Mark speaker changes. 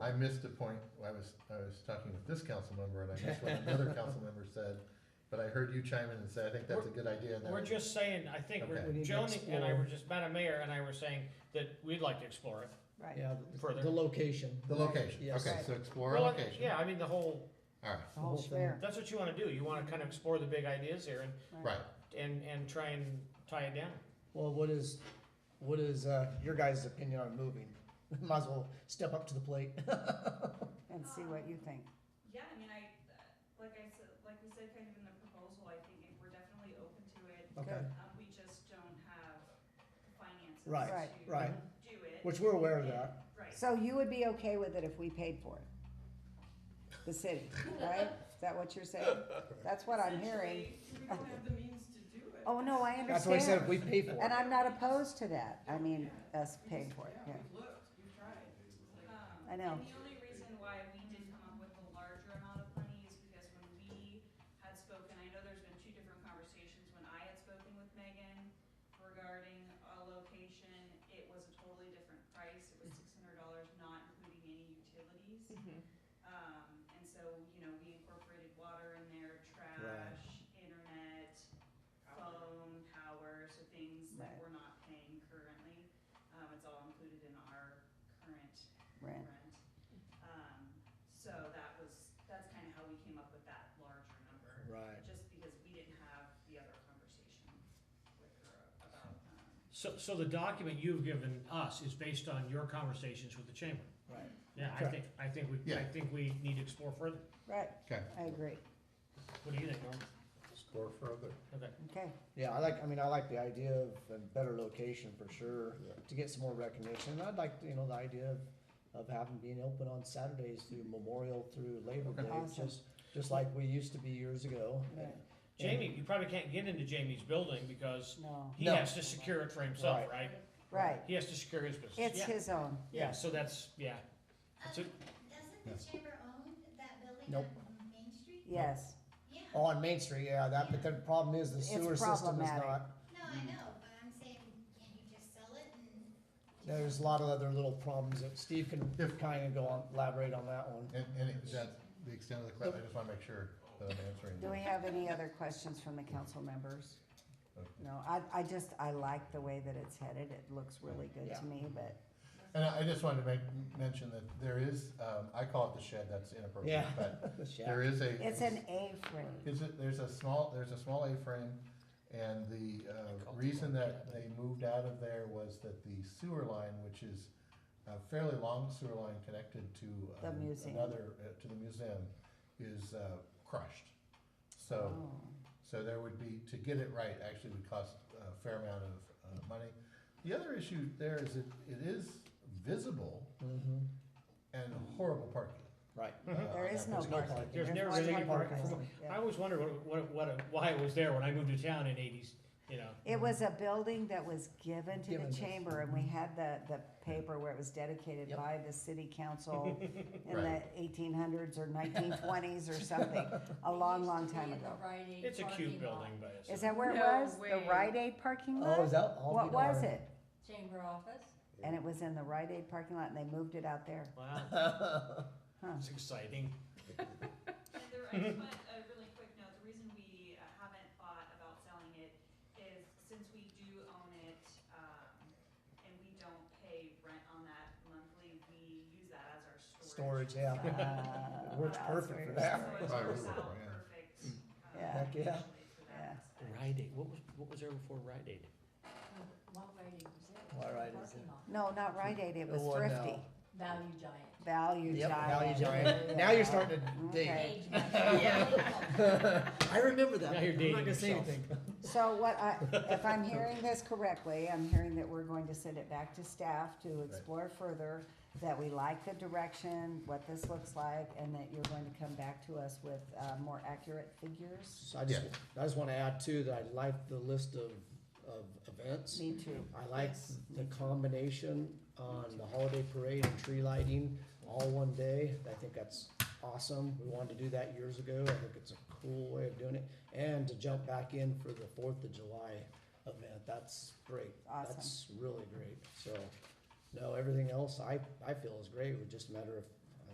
Speaker 1: I missed a point, I was, I was talking with this council member and I missed what another council member said, but I heard you chime in and say, I think that's a good idea. and that
Speaker 2: We're
Speaker 1: would-
Speaker 2: just saying, I think, we're-
Speaker 1: Uh, Okay.
Speaker 3: We need to
Speaker 2: Joan and I
Speaker 3: explore.
Speaker 2: were just, Madam Mayor and I were saying that we'd like to explore it.
Speaker 4: Right,
Speaker 3: Yeah,
Speaker 2: Further.
Speaker 3: the location.
Speaker 1: The location,
Speaker 3: Yes.
Speaker 1: okay, so explore
Speaker 2: Well,
Speaker 1: location.
Speaker 2: Yeah, I mean, the whole,
Speaker 1: Alright,
Speaker 4: the whole
Speaker 3: whole thing.
Speaker 4: schmear.
Speaker 2: that's what you wanna do, you wanna kind of explore the big ideas here and,
Speaker 1: right,
Speaker 2: and, and try and tie it down.
Speaker 3: Well, what is, what is, uh, your guys' opinion on moving? Might as well step up to the plate.
Speaker 4: And see what you think.
Speaker 5: Yeah, I mean, I, like I said, like we said kind of in the proposal, I think if we're definitely open to it.
Speaker 3: Okay,
Speaker 5: Um, we just don't have the finances
Speaker 3: Right,
Speaker 5: to
Speaker 3: right.
Speaker 5: do it.
Speaker 3: Which we're aware of that.
Speaker 5: Right.
Speaker 4: So you would be okay with it if we paid for it? The city, right? Is that what you're saying? That's what I'm hearing.
Speaker 5: Essentially, We don't have the means to do it.
Speaker 4: Oh, no, I
Speaker 3: That's why I said if
Speaker 4: understand.
Speaker 3: we pay for
Speaker 4: And
Speaker 3: it.
Speaker 4: I'm not opposed to that. I mean, us paying for it, yeah.
Speaker 5: we've looked, we've tried. Um,
Speaker 4: I know.
Speaker 5: And the only reason why we did come up with the larger amount of money is because when we had spoken, I know there's been two different conversations, when I had spoken with Megan regarding a location, it was a totally different price, it was six hundred dollars, not including any utilities.
Speaker 4: Mm-hmm.
Speaker 5: Um, and so, you know, we incorporated water in there, trash, internet, phone, power, so things that
Speaker 4: Right.
Speaker 5: we're not paying currently. Um, it's all included in our current
Speaker 4: Rent.
Speaker 5: rent. Um, so that was, that's kind of how we came up with that larger number.
Speaker 3: Right.
Speaker 5: Just because we didn't have the other conversation with her about, um,
Speaker 2: So, so the document you've given us is based on your conversations with the chamber?
Speaker 3: Right.
Speaker 2: Yeah, I
Speaker 3: Correct.
Speaker 2: think, I think we, I
Speaker 1: Yeah.
Speaker 2: think we need to explore further.
Speaker 4: Right,
Speaker 1: okay.
Speaker 4: I agree.
Speaker 2: What do you think, Norm?
Speaker 1: Explore further.
Speaker 2: Okay.
Speaker 4: Okay,
Speaker 3: Yeah, I like, I mean, I like the idea of a better location for sure, to get some more recognition. And I'd like, you know, the idea of, of having, being open on Saturdays through Memorial through Labor
Speaker 1: Okay.
Speaker 3: Day,
Speaker 4: Awesome.
Speaker 3: just, just like we used to be years ago.
Speaker 4: Right.
Speaker 3: And-
Speaker 2: Jamie, you probably can't get into Jamie's building because
Speaker 4: no,
Speaker 2: he
Speaker 3: No.
Speaker 2: has to secure it for himself, right?
Speaker 4: right.
Speaker 2: He has to secure his business.
Speaker 4: It's
Speaker 2: Yeah.
Speaker 4: his own.
Speaker 2: Yeah, so that's, yeah. That's
Speaker 6: Um,
Speaker 2: it.
Speaker 6: Doesn't the chamber own that building
Speaker 3: Nope.
Speaker 6: on Main Street?
Speaker 4: Yes,
Speaker 6: Yeah,
Speaker 3: Oh, on Main Street, yeah, that, but the problem is the
Speaker 4: It's
Speaker 3: sewer system is
Speaker 4: problematic.
Speaker 3: not,
Speaker 6: no, I know, but I'm saying, can't you just sell it and?
Speaker 3: there's a lot of other little problems that Steve can
Speaker 1: If-
Speaker 3: kinda go on, elaborate on that one.
Speaker 1: And, and it- that's the extent of the question, I just wanna make sure that I'm answering.
Speaker 4: Do we have any other questions from the council members? No, I, I just, I like the way that it's headed. It looks really good
Speaker 3: Yeah.
Speaker 4: to me, but,
Speaker 1: And I I just wanted to make, mention that there is, um, I call it the shed, that's inappropriate,
Speaker 3: Yeah.
Speaker 1: but
Speaker 3: The shack.
Speaker 1: there is a.
Speaker 4: It's an A-frame.
Speaker 1: Is it, there's a small, there's a small A-frame, and the, uh, reason that they moved out of there was that the sewer line, which is a fairly long sewer line connected to.
Speaker 4: The
Speaker 1: um,
Speaker 4: museum.
Speaker 1: Another, uh, to the museum, is, uh, crushed. So,
Speaker 4: Oh,
Speaker 1: so there would be, to get it right, actually would cost a fair amount of, uh, money. The other issue there is it, it is visible
Speaker 3: Mhm.
Speaker 1: and horrible parking.
Speaker 3: Right.
Speaker 1: uh,
Speaker 4: There
Speaker 1: on
Speaker 4: is
Speaker 1: that
Speaker 4: no
Speaker 1: particular
Speaker 3: parking.
Speaker 1: site.
Speaker 2: There's
Speaker 4: There's
Speaker 2: never
Speaker 4: one
Speaker 2: been any
Speaker 4: car
Speaker 2: parking.
Speaker 4: parking, yeah.
Speaker 2: I always wondered what, what, what, why I was there when I moved to town in eighties, you know.
Speaker 4: It was a building that was given to
Speaker 3: Given
Speaker 4: the
Speaker 3: to-
Speaker 4: chamber and we had the, the paper where it was dedicated
Speaker 3: Yep.
Speaker 4: by the city council in the
Speaker 1: Right.
Speaker 4: eighteen hundreds or nineteen twenties or something, a long, long time ago.
Speaker 2: It's a cute building, but it's.
Speaker 4: Is that where it
Speaker 7: No
Speaker 4: was? The
Speaker 7: way.
Speaker 4: Rite Aid parking lot?
Speaker 3: Oh, is that? I'll be
Speaker 4: What was
Speaker 3: darned.
Speaker 4: it?
Speaker 7: Chamber office.
Speaker 4: And it was in the Rite Aid parking lot and they moved it out there.
Speaker 2: Wow.
Speaker 4: Huh.
Speaker 2: It's exciting.
Speaker 5: And the, I just want a really quick note, the reason we uh, haven't thought about selling it is since we do own it, um, and we don't pay rent on that monthly, we use that as our
Speaker 3: Storage,
Speaker 5: storage.
Speaker 3: yeah.
Speaker 4: Uh,
Speaker 3: It works
Speaker 4: that's
Speaker 3: perfect for
Speaker 4: weird.
Speaker 3: that.
Speaker 5: So it
Speaker 1: Right,
Speaker 5: works
Speaker 1: we were,
Speaker 5: out
Speaker 1: yeah.
Speaker 5: perfect, um,
Speaker 4: Yeah.
Speaker 3: Heck, yeah.
Speaker 5: actually for
Speaker 4: Yeah.
Speaker 5: that aspect.
Speaker 2: Rite Aid, what was, what was there before Rite Aid?
Speaker 7: What rate is it?
Speaker 3: What rate is
Speaker 7: Parking
Speaker 3: it?
Speaker 4: No,
Speaker 7: lot.
Speaker 4: not Rite Aid, it
Speaker 3: The
Speaker 4: was
Speaker 3: one
Speaker 4: Thrifty.
Speaker 3: now.
Speaker 7: Value giant.
Speaker 4: Value
Speaker 3: Oh, uh, Yep, now
Speaker 4: Giant.
Speaker 3: you're giant. Now you're starting to
Speaker 4: Okay.
Speaker 3: dig.
Speaker 7: Age match.
Speaker 3: I remember that.
Speaker 2: Now you're
Speaker 3: I'm not
Speaker 2: dating
Speaker 3: gonna say
Speaker 2: yourself.
Speaker 3: anything.
Speaker 4: So what I, if I'm hearing this correctly, I'm hearing that we're going to send it back to staff to explore further, that we like the direction, what this looks like, and that you're going to come back to us with, uh, more accurate figures?
Speaker 3: So I just, I just wanna add too, that I like the list of, of events.
Speaker 4: Me too.
Speaker 3: I like the combination on the holiday parade and tree lighting all one day. I think that's awesome. We wanted to do that years ago. I think it's a cool way of doing it. And to jump back in for the Fourth of July event, that's great.
Speaker 4: Awesome.
Speaker 3: That's really great. So, no, everything else I, I feel is great. It was just a matter of